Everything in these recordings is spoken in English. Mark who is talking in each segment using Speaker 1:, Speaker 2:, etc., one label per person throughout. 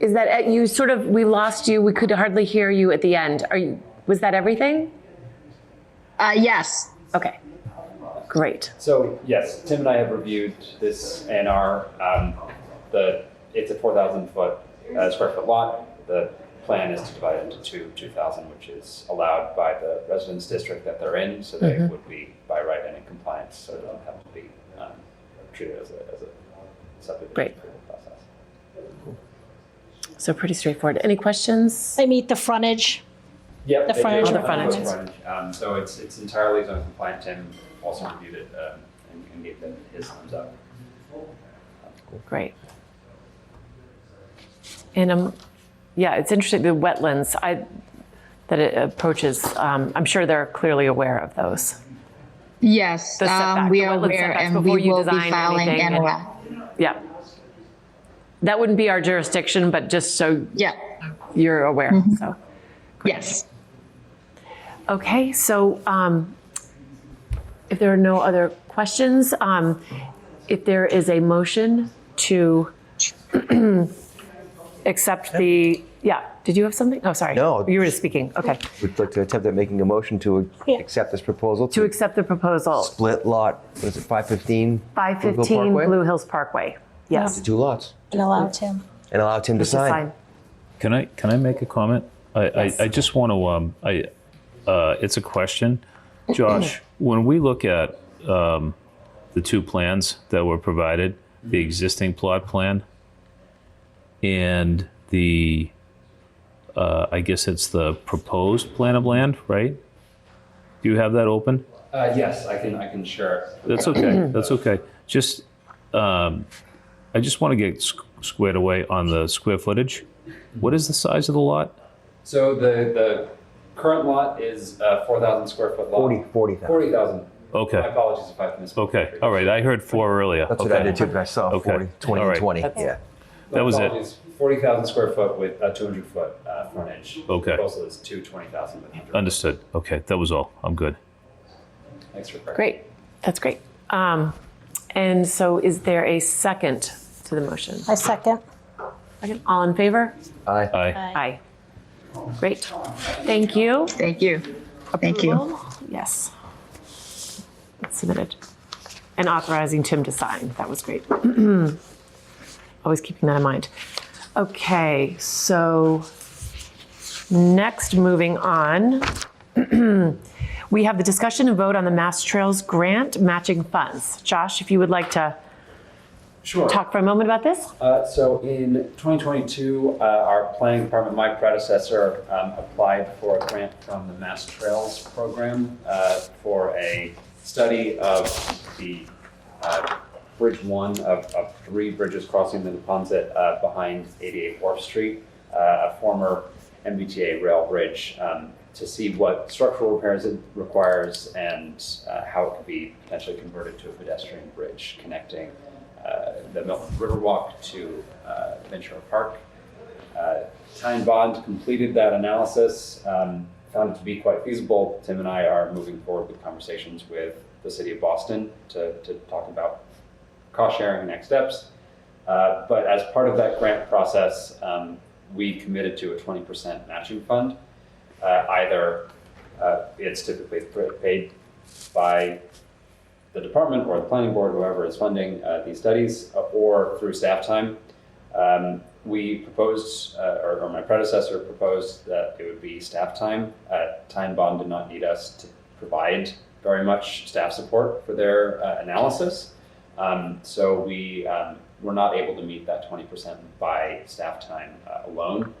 Speaker 1: is that uh, you sort of we lost you. We could hardly hear you at the end. Are you? Was that everything?
Speaker 2: Uh, yes.
Speaker 1: Okay. Great.
Speaker 3: So yes, Tim and I have reviewed this ANR. Um, the it's a four thousand foot uh, square foot lot. The plan is to divide it into two two thousand, which is allowed by the residence district that they're in, so they would be by right and in compliance, so it doesn't have to be um, treated as a as a subdivision
Speaker 1: Great.
Speaker 3: approval process.
Speaker 1: So pretty straightforward. Any questions?
Speaker 4: They meet the frontage.
Speaker 3: Yep.
Speaker 4: The
Speaker 3: they do.
Speaker 4: frontage
Speaker 1: Oh, the requirements.
Speaker 3: Both frontage. Um, so it's, it's entirely zone compliant, Tim also reviewed it, um, and, and gave them his thumbs up.
Speaker 1: Great. And um, yeah, it's interesting the wetlands. I that it approaches. Um, I'm sure they're clearly aware of those.
Speaker 2: Yes.
Speaker 1: The setback,
Speaker 2: Um, we
Speaker 1: the
Speaker 2: are
Speaker 1: wetland
Speaker 2: aware
Speaker 1: setbacks
Speaker 2: and
Speaker 1: before
Speaker 2: we
Speaker 1: you
Speaker 2: will be
Speaker 1: design
Speaker 2: filing
Speaker 1: anything and-
Speaker 2: NOI.
Speaker 1: Yeah. That wouldn't be our jurisdiction, but just so
Speaker 2: Yeah.
Speaker 1: you're aware.
Speaker 2: Mm-hmm.
Speaker 1: So.
Speaker 2: Yes.
Speaker 1: Okay, so um, if there are no other questions, um, if there is a motion to accept the, yeah, did you have something? Oh, sorry.
Speaker 5: No.
Speaker 1: You were just speaking, okay.
Speaker 5: Would like to attempt at making a motion to
Speaker 4: Yeah.
Speaker 5: accept this proposal
Speaker 1: To
Speaker 5: to
Speaker 1: accept the proposal,
Speaker 5: split lot, what is it, 515? Blue Hill
Speaker 1: 515
Speaker 5: Parkway?
Speaker 1: Blue Hills Parkway. Yes.
Speaker 5: To two lots
Speaker 4: And allow Tim.
Speaker 5: and allow Tim to
Speaker 1: Just
Speaker 5: sign.
Speaker 1: sign.
Speaker 6: Can I can I make a comment? I
Speaker 1: Yes.
Speaker 6: I, I just want to um I uh it's a question, Josh. when we look at um the two plans that were provided, the existing plot plan and the uh, I guess it's the proposed plan of land, right? Do you have that open?
Speaker 3: Uh, yes, I can, I can share. it.
Speaker 6: That's okay. That's okay. Just, um, I just want to get squ- squared away on the square footage. What is the size of the lot?
Speaker 3: So the, the current lot is a four thousand square foot lot.
Speaker 5: 40 40,000.
Speaker 3: Forty thousand. My
Speaker 6: Okay.
Speaker 3: apologies if I've missed.
Speaker 6: Okay. All right. I heard four earlier.
Speaker 5: That's
Speaker 6: okay.
Speaker 5: what I did too, but I saw
Speaker 6: Okay.
Speaker 5: 40, 20, and
Speaker 6: All right.
Speaker 5: 20. Yeah.
Speaker 6: That was it.
Speaker 3: Forty thousand square foot with a two hundred foot, uh, frontage.
Speaker 6: Okay.
Speaker 3: Proposal is two twenty thousand with hundred.
Speaker 6: Understood. Okay. That was all. I'm good.
Speaker 3: Thanks for correcting.
Speaker 1: Great, that's great. Um, And so is there a second to the motion?
Speaker 4: I second.
Speaker 1: Second. All in favor?
Speaker 5: Aye.
Speaker 6: Aye.
Speaker 1: Aye. Great, thank you.
Speaker 2: Thank you. Thank you.
Speaker 1: Approval? Yes. It's Submitted. And authorizing Tim to sign. That was great. Always keeping that in mind. Okay, so next, moving on. We have the discussion and vote on the Mass Trails Grant matching funds. Josh, if you would like to
Speaker 3: Sure.
Speaker 1: talk for a moment about this?
Speaker 3: Uh, So in 2022, uh, our planning department, my predecessor, um, applied for a grant from the Mass Trails Program uh, for a study of the uh, Bridge 1 of of three bridges crossing the Neponset uh, behind 88 Wharf Street, uh, a former MBTA rail bridge, um, to see what structural repairs it requires and uh, how it could be potentially converted to a pedestrian bridge connecting uh, the Milton Riverwalk to uh, Ventura Park. Uh, Tyne Bond completed that analysis, um, found it to be quite feasible. Tim and I are moving forward with conversations with the city of Boston to, to talk about cost sharing and next steps. Uh, but as part of that grant process, um, we committed to a 20% matching fund. Uh, either uh, it's typically pr- paid by the department or the planning board, whoever is funding uh, these studies, uh, or through staff time. Um, we proposed, uh, or, or my predecessor proposed, that it would be staff time. Uh, time Bond did not need us to provide very much staff support for their uh, analysis. Um, so we um, were not able to meet that 20% by staff time uh, alone,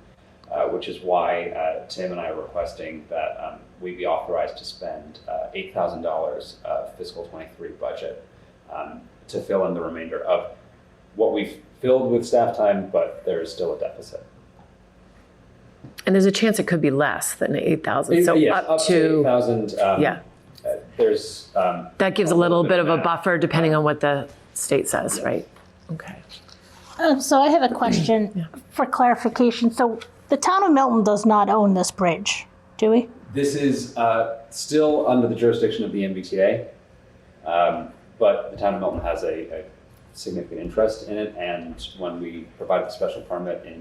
Speaker 3: uh, which is why uh, Tim and I are requesting that um, we be authorized to spend uh, $8,000 of uh, fiscal 23 budget um, to fill in the remainder of what we've filled with staff time, but there's still a deficit.
Speaker 1: And there's a chance it could be less than 8,000, so
Speaker 3: Yes,
Speaker 1: up
Speaker 3: to
Speaker 1: to,
Speaker 3: 8,000. um,
Speaker 1: yeah.
Speaker 3: uh, There's. um,
Speaker 1: That gives a little bit of a
Speaker 3: math.
Speaker 1: buffer depending on what the state says, right? Okay.
Speaker 4: Um, so I have a question for clarification. So the town of Milton does not own this bridge, do we?
Speaker 3: This is uh, still under the jurisdiction of the MBTA, um, but the town of Milton has a, a significant interest in it. And when we provided the special permit in